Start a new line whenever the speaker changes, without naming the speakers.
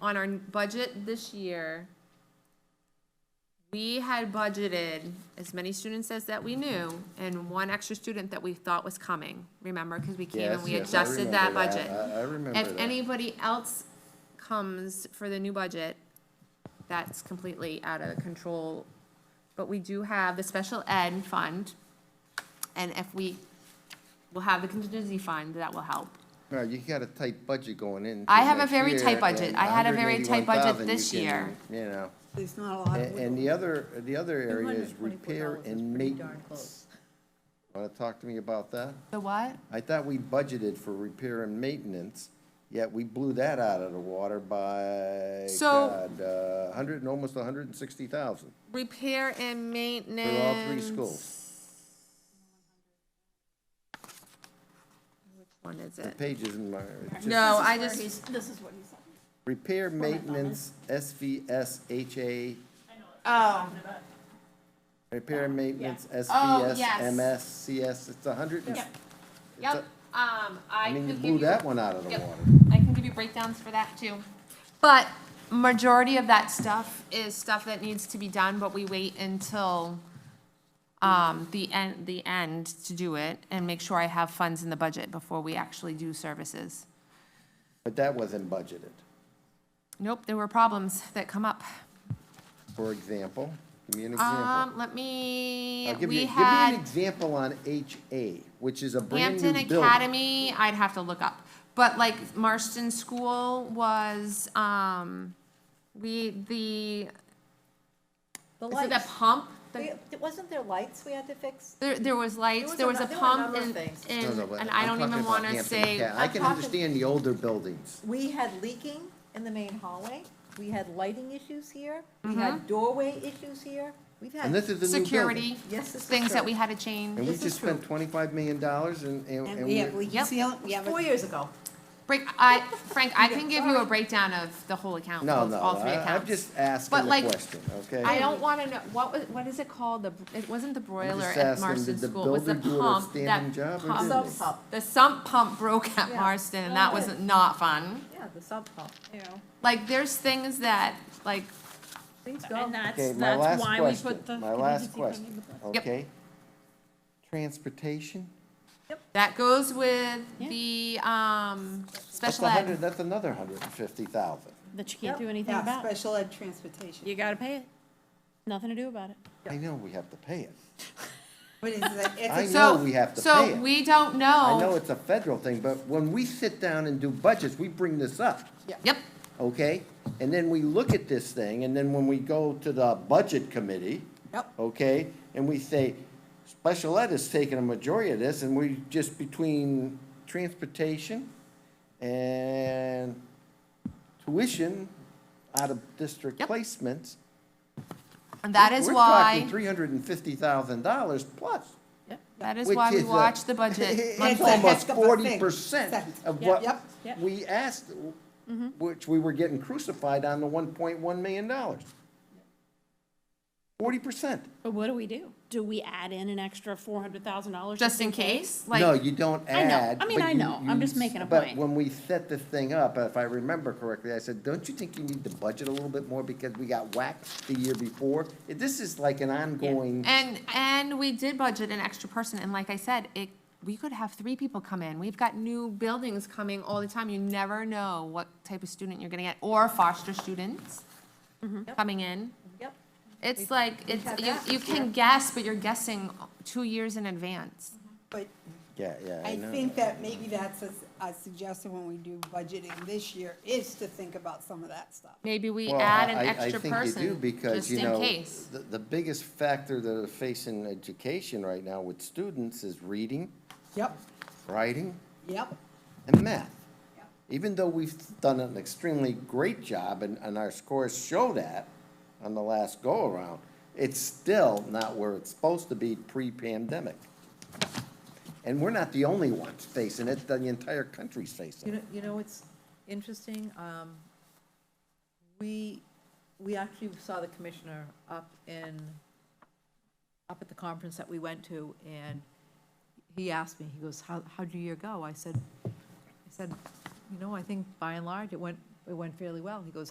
on our budget this year, we had budgeted as many students as that we knew and one extra student that we thought was coming, remember? Because we came and
Yes,
we
yes, I
adjusted that
remember
budget.
I I remember
If
that.
anybody else comes for the new budget, that's completely out of control. But we do have the special ed fund, and if we, we'll have the contingency fund, that will help.
No, you got a tight budget going in.
I have a very tight budget. I had a very tight budget this year.
You know,
There's not a lot
and,
of
and
wiggle.
the other, the other area is
$224
repair
is
and
pretty darn
maintenance. Wanna talk to me about that?
The what?
I thought we budgeted for repair and maintenance, yet we blew that out of the water by,
So-
God, uh, hundred and almost hundred and sixty thousand
Repair and
for
maintenance.
all three schools.
One is it?
Pages in my, just-
No, I
Where
just,
he's- This is what he's saying.
repair, maintenance, SVS, HA,
oh,
Repair and maintenance,
Oh,
SVS,
yes.
MS, CS, it's a hundred and.
Yep.
it's
yep,
a-
um, I
I mean, you
could
blew
give you,
that one out of the
Yep.
water.
I can give you breakdowns for that too. But majority of that stuff is stuff that needs to be done, but we wait until, um, the end, the end to do it and make sure I have funds in the budget before we actually do services.
But that wasn't budgeted.
Nope, there were problems that come up.
For example, give me an example.
Um, let me,
I'll give you,
we
give me an
had
example on HA, which is a brand new
Hampton
building.
Academy, I'd have to look up. But like Marston School was, um, we, the, is
The
it the
lights.
pump? The-
We- Wasn't there lights we had to fix?
There, there was lights, there
There was
was
a
a
nu- there were a
pump
number of
and,
things.
No,
and,
no, but
and
I'm
I don't
talking
even
about
wanna
Hampton
say,
Acad- I
I'm
can
talking-
understand the older buildings.
We had leaking in the main hallway. We had lighting issues here. We
Mm-hmm.
had doorway issues here. We've had.
And this is a new building.
security,
Yes, this is
things that
true.
we had to
And
change.
we
This
just
is true.
spent twenty-five million dollars and, and.
And
and
we
we're-
have, we
Yep.
seal, we have,
Four
a-
years ago.
Break, I, Frank, I can give you a breakdown of the whole account,
No,
both,
no,
all three
I, I'm
accounts.
just
But
asking the
like,
question, okay?
I don't wanna know, what was, what is it called, the, it wasn't the broiler
just
at
asking,
Marston
did the
School, it was the
builder do an
pump,
outstanding
that
job or
pump.
didn't?
Sub pump.
The sump pump broke at
Yeah.
Marston, and
Oh,
that
good.
was not fun.
Yeah, the sub pump, you know.
Like, there's things that, like,
Please
And
go.
Okay,
that's,
my
that's
last
why we put the.
question, my last
contingency fund in
question,
the budget.
Yep.
okay? Transportation?
that goes with
Yeah.
the, um,
That's
special
a
ed.
hundred- That's another hundred and fifty thousand.
That you
Yep.
can't do anything
yeah,
about.
special ed transportation.
You gotta pay it. Nothing to do about it.
I know we have to pay it.
What is that?
I
It's a-
know we have to pay
So
it.
we don't
I know
know.
it's a federal thing, but when we sit down and do budgets, we bring this up,
Yep,
okay? And then we look at this thing, and then when we go to the budget committee,
Yep.
okay? And we say, special ed is taking a majority of this, and we just between transportation and tuition out of district
Yep.
placements.
and that is
we're
why,
talking three hundred and fifty thousand dollars plus.
that is
which
why we
is a-
watch the budget.
It's
a
monthly.
almost
heck of a
forty
thing.
percent of
Yep.
what
Yep.
Yep.
we asked,
Mm-hmm.
which we were getting crucified on the one point one million dollars. Forty percent.
But what do we do? Do we add in an extra four hundred thousand dollars?
Just in case,
No,
like,
you don't
I know.
add.
I mean,
but
I
you-
know. I'm
you
just making a
s- but
point.
when we set this thing up, if I remember correctly, I said, don't you think you need to budget a little bit more because we got whacked the year before? This is like an ongoing,
and, and we did budget an extra person, and like I said, it, we could have three people come in. We've got new buildings coming all the time. You never know what type of student you're gonna get, or foster students
Mm-hmm.
coming in.
Yep.
It's like, it's,
had
you,
that
you can guess, but you're guessing two years in advance.
But
yeah, yeah, I
I
know.
think that maybe that's a, s- a suggestion when we do budgeting this year, is to think about some of that stuff.
Maybe we
Well,
add an
I- I-
extra
I think you do,
person,
because,
just
you
in
know,
case.
the, the biggest factor that are facing education right now with students is reading,
Yep,
writing,
yep.
and math.
Yep.
Even though we've done an extremely great job, and, and our scores show that on the last go-around, it's still not where it's supposed to be pre-pandemic. And we're not the only ones facing it, the entire country's
You
facing
know,
it.
you know, it's interesting, um, we, we actually saw the commissioner up in, up at the conference that we went to, and he asked me, he goes, how, how'd your year go? I said, I said, you know, I think by and large, it went, it went fairly well. He goes,